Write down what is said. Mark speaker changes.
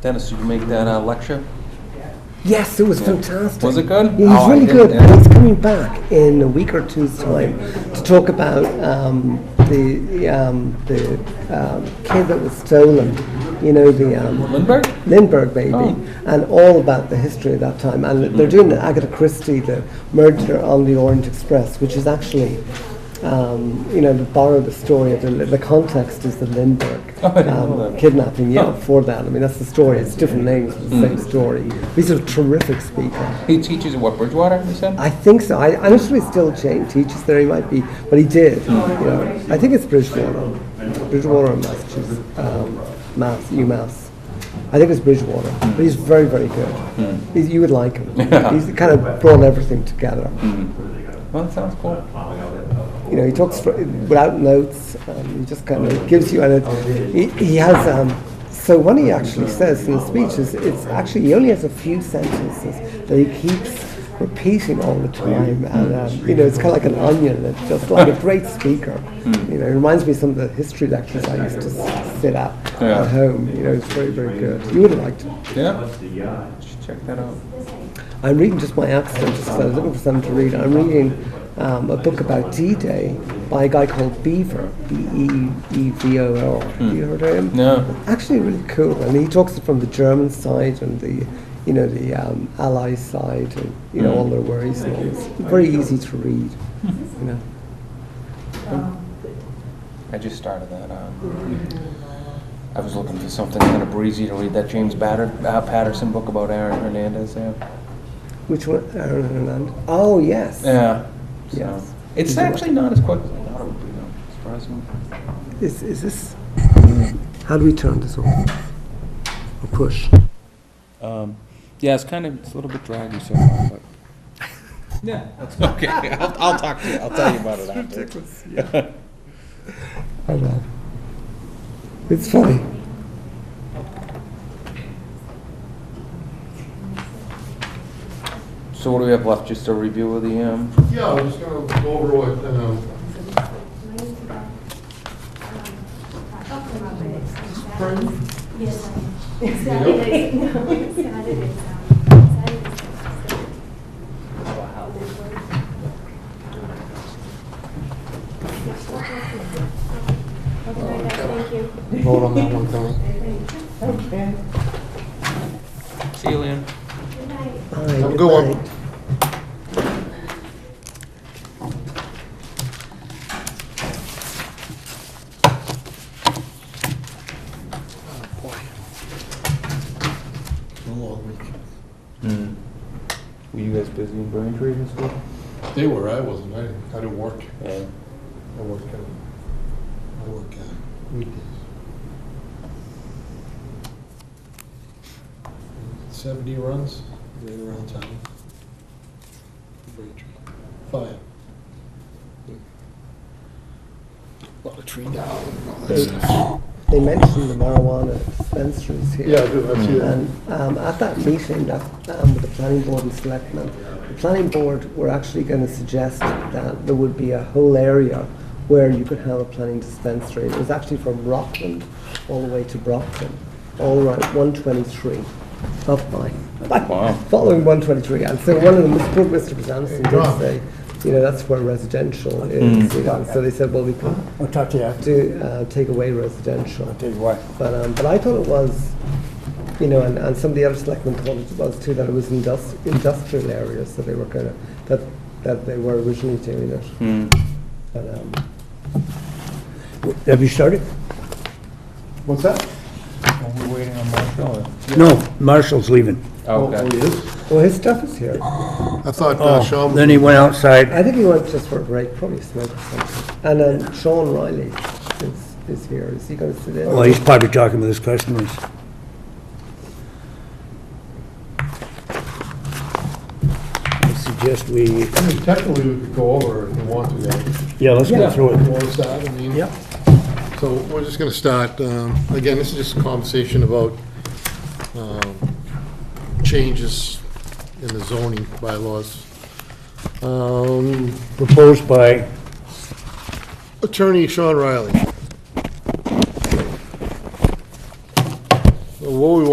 Speaker 1: Dennis, did you make that uh, lecture?
Speaker 2: Yes, it was fantastic.
Speaker 1: Was it good?
Speaker 2: It was
Speaker 1: Oh, I
Speaker 2: really
Speaker 1: didn't-
Speaker 2: good. And he's coming back in a week or two's time to talk about um, the um, the um, kid that was stolen. You know the um,
Speaker 1: Lindbergh?
Speaker 2: Lindbergh baby,
Speaker 1: Oh. Mm-hmm.
Speaker 2: and all about the history of that time. And they're doing the Agatha Christie, the murder on the Orient Express, which is actually. Um, you know, to borrow the story of the, the context is the Lindbergh
Speaker 1: Oh, I didn't know
Speaker 2: um,
Speaker 1: that.
Speaker 2: kidnapping. Yeah,
Speaker 1: Oh. Mm-hmm.
Speaker 2: for that. I mean, that's the story. It's different names, but the same story. But He's a terrific speaker.
Speaker 1: He teaches at what, Bridgewater, you said?
Speaker 2: I think so. I honestly still Jane teaches there. He might be, but he did. You know, I think it's Bridgewater, Bridgewater, Massachusetts, um, Mass, UMass. I think it's Bridgewater, but he's very, very good. He's, you would like him. He's kind of brought everything together.
Speaker 1: Well, that sounds cool.
Speaker 2: You know, he talks fr- without notes. Um, he just kind of gives you, and it, he, he has. Um, so what he actually says in the speech is, it's actually he only has a few sentences that he keeps repeating all the time, and um, you know, it's kind of like an onion. It's just like a great speaker. You know, it reminds me of some of the history lectures I used to s- sit at
Speaker 1: Yeah.
Speaker 2: at home. You know, it's very, very good. You would have liked him.
Speaker 1: Yeah? Should check that out.
Speaker 2: I'm reading just my accent, just 'cause I was looking for something to read. I'm reading um, a book about D-Day by a guy called Beaver, E B-E-E-V-O-R. Have You heard of him?
Speaker 1: Hmm. No.
Speaker 2: Actually, really cool. And he talks from the German side and the, you know, the um, Allies side and you know all
Speaker 1: Hmm.
Speaker 2: their worries and all this. Very easy to read. You know.
Speaker 1: I just started that. Um, I was looking for something kind of breezy to read, that James Batter, uh, Patterson book about Aaron Hernandez. Yeah.
Speaker 2: Which one? Aaron Hernandez. Oh yes.
Speaker 1: yeah. So,
Speaker 2: Yes.
Speaker 1: It's actually not as quick as I thought it would be, though. Surprising.
Speaker 2: Is, is this? How do we turn this off? Or push?
Speaker 1: Um, yeah, it's kind of it's a little bit draggy so far, but. Yeah, that's okay. I'll, I'll talk to you. I'll tell you about it after.
Speaker 2: I know. It's funny.
Speaker 1: So what do we have left? Just a review of the um,
Speaker 3: Yeah, I'm just gonna go over what, um, Pardon?
Speaker 4: Yes.
Speaker 3: Saturdays.
Speaker 4: Thank you.
Speaker 3: vote on that one, Tony.
Speaker 1: See you, Leon.
Speaker 4: Good night.
Speaker 2: All
Speaker 3: Have
Speaker 2: right,
Speaker 3: a good one.
Speaker 2: night.
Speaker 1: Were you guys busy in Braintree this week?
Speaker 3: They were, I wasn't, I, I didn't work,
Speaker 1: Yeah.
Speaker 3: I work, uh, I work, uh, weekdays. Seventy runs, right around town. Braintree. Five. A Lot of tree down.
Speaker 2: They mentioned the marijuana dispensaries here.
Speaker 3: Yeah, I do, I see that.
Speaker 2: And um, at that meeting, that, um, with the planning board and selectmen, the planning board were actually going to suggest that there would be a whole area where you could have a planning dispensary. It was actually from Rockland all the way to Brockton, all around 123 up by.
Speaker 1: Wow.
Speaker 2: Following 123, and so one of them, Mr. Bezanson
Speaker 3: Yeah.
Speaker 2: did say, you know, that's where residential is, you know, so they said, well, we could
Speaker 5: I'll talk to you after.
Speaker 2: do, uh, take away residential.
Speaker 5: Tell you what.
Speaker 2: But, um, but I thought it was, you know, and, and some of the other selectmen thought it was too, that it was industri- industrial areas that they were gonna, that, that they were originally doing it. But, um,
Speaker 5: Have you started?
Speaker 3: What's that?
Speaker 1: Are we waiting on Marshall?
Speaker 5: No, Marshall's leaving.
Speaker 3: Oh,
Speaker 1: Okay.
Speaker 3: oh, he is?
Speaker 2: well, his stuff is here.
Speaker 3: I thought
Speaker 5: Oh.
Speaker 3: uh, Sean.
Speaker 5: Then he went outside.
Speaker 2: I think he went just for a break, probably smoke or something. And then Sean Riley is, is here. Is he gonna sit in?
Speaker 5: Well, he's probably talking with his customers. I suggest we,
Speaker 3: I mean, Technically, we could go over if you want to, though.
Speaker 5: yeah, let's go
Speaker 2: Yeah.
Speaker 5: through
Speaker 3: You
Speaker 5: it.
Speaker 3: want to start? I mean-
Speaker 5: Yep.
Speaker 3: So we're just going to start, um, again, this is just a conversation about um, changes in the zoning bylaws. Um,
Speaker 5: Proposed by,
Speaker 3: Attorney Sean Riley. So What we